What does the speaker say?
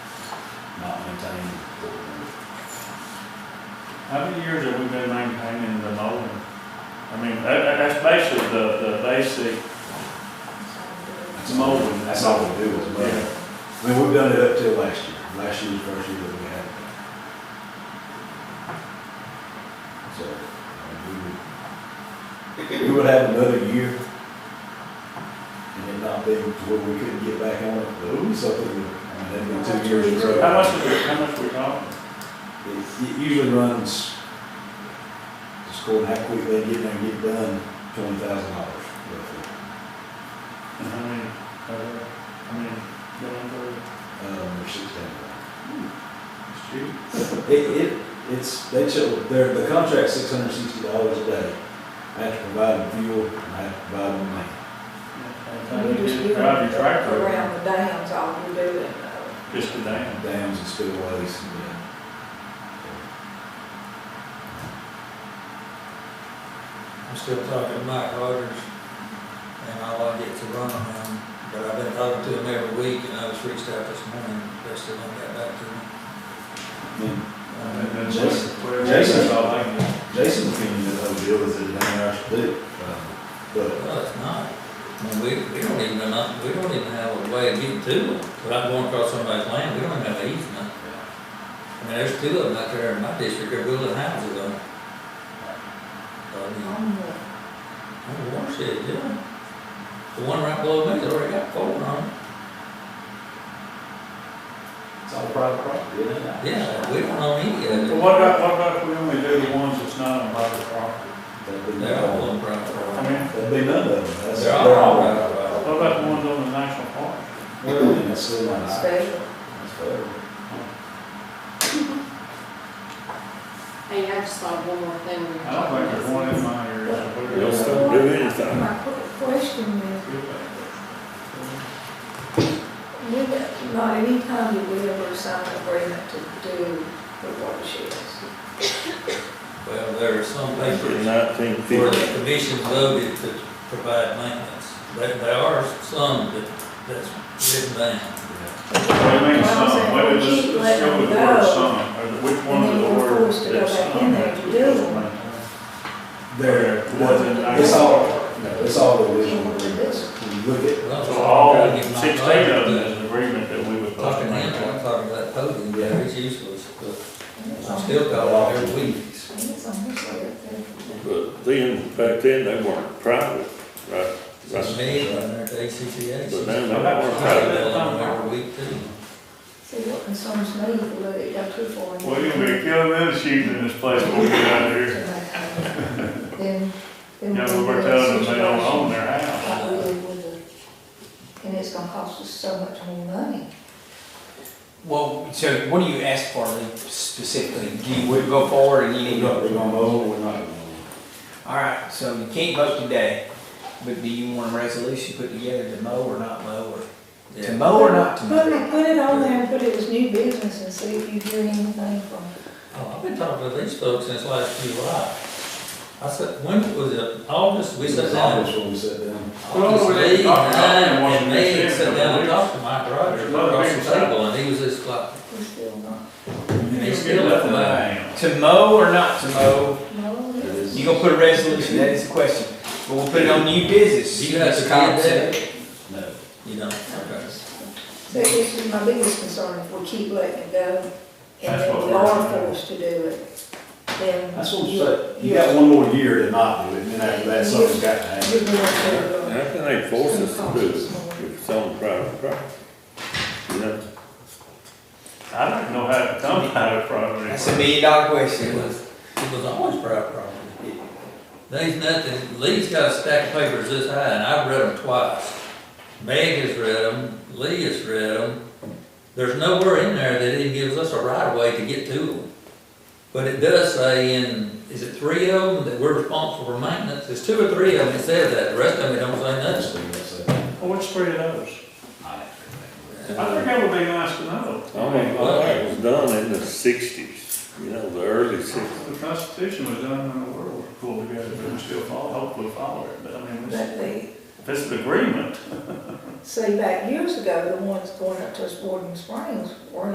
maintained. How many years have we been maintaining the mowing? I mean, that, that- that's basically the, the basic That's all- mowing. That's all we do is mow. Yeah. I mean, we've done it up till last year. Last year was the first year that we had. it. So, I mean, we would, we would have another year. And it not be to where we couldn't get back on it, but it was something, I mean, that'd be two years in a row. How much, are we- how much we talking? It it usually runs, just according to how quick they get there and get done, twenty thousand dollars roughly. And how many, uh, I mean, going for, Um, or sixteen. it's cheap. It, it, it's, they chill, their, the contract's six hundred and sixty dollars a day. I have to provide them fuel, and I have to provide them money. I We think you just just drive your tractor, Around the dams, all we do, and, uh, just a damn. dams and uh, spillways, yeah. I'm still talking to Mike Rogers, and all I get to run on him, but I've been talking to him every week, and I was reached out this morning, they still haven't got back to me. And And Um, then Jason- whatever- Jason- that's all I can do. Jason's opinion of the whole deal is that it ain't ours to do, um, but, Well, it's not, I mean, we, we don't even, know- we don't even have a way of getting to them, without going across somebody's land, we don't even have an easement. I mean, there's two of them out there in my district, they're building houses on. it. So, I mean, on the- on the watershed, yeah. The one right below me, they already got four on it. it's all private property, isn't it? Yeah, we don't own any of But it, what about, what about if we only do the ones that's not on private property? That'd be, they're all that'd on private property. I mean, be none of them. That's- They're all private property. what about the ones on the national park? Well, and that's still not ours. special. That's fair. Hey, I just thought of one more thing. we were I don't think talking there's about. one in my area. that would- Yes, sir. do So my- anything. My qu- question is, we, got- not any time did we ever sign an agreement to do the watersheds. Well, there are some papers Nineteen where fifty, the commission voted to provide maintenance. There, there are some that, that's written down. What do you mean Well, I'm some? saying Wait, we let's, let's keep go letting with the them word go, some, or the- which one and of the then we're words forced to go that's back in some? there to do them. There, Wasn't- it's all, no, it's all the original agreements. When you look at, So all sixteen of them is an agreement that we was supposed Talking to to him, make. I'm talking about podium, Yeah. yeah, it's useless, but And it's I'm on- still calling every week. and it's on this way up there. but then, back then, they weren't private, right? It's Right. me, and there's ACCA. But now they I'm weren't private. calling them every week too. See, what concerns me, the way it got too far. in- Well, you're gonna be killing them sheep in this place when we get out of here. Then, You then. know, we'll we were get a telling them they don't situation own their house. like we did with the- And it's gonna cost us so much more money. Well, so what do you ask for specifically? Do you would go forward and you we're need not, we're to? gonna mow, we're not gonna mow. All right, so you can't vote today, but do you want a resolution put together to mow or not mow or to Yeah. mow Oh, or not to Put mow? it, put it on there and put it as new business and see if you hear anything from Oh, I've been talking to these folks since last July. I said, when was it, August, we sat down, That's when we sat down. Well, Well, we Lee didn't and talk about I it in and Washington, me D.C. sat down and There's talked to Mike Rogers a lot of across people the table, and he was just like, We're still not. and You he's get still up nothing there. out of them. To mow or not to mow? No, It it's- is- You gonna put a resolution, that is the question. But we'll put it on new business. Do you have to Mr. Cobb get said. No. You know, okay. So this is my biggest concern, if we keep letting it go and That's what then we we're are trying to do. forced to do it, then. That's what we you're- said. You got one more year to not do it, and then after that, something's got to You're happen. going to. How can they force us to do it if it's on private property? You know, I don't know how to come out of property. That's a million dollar It question. was, it was always private property. There's nothing, Lee's got a stack of papers this high, and I've read them twice. Meg has read them, Lee has read them. There's nowhere in there that it gives us a right of way to get to them. But it does say in, is it three of them that we're responsible for maintenance? It's two or three of them that says that, the rest of them don't say nothing. That's what we said. Well, Which three of those? I think Uh, that would be nice to know. I mean, all that was done in the sixties, you know, the early sixties. The Constitution was done when the world was pulled together, but we still follow, hopefully follow it, but I mean, this- But the, if it's an agreement. see, back years ago, the ones going up to us Boarding Springs were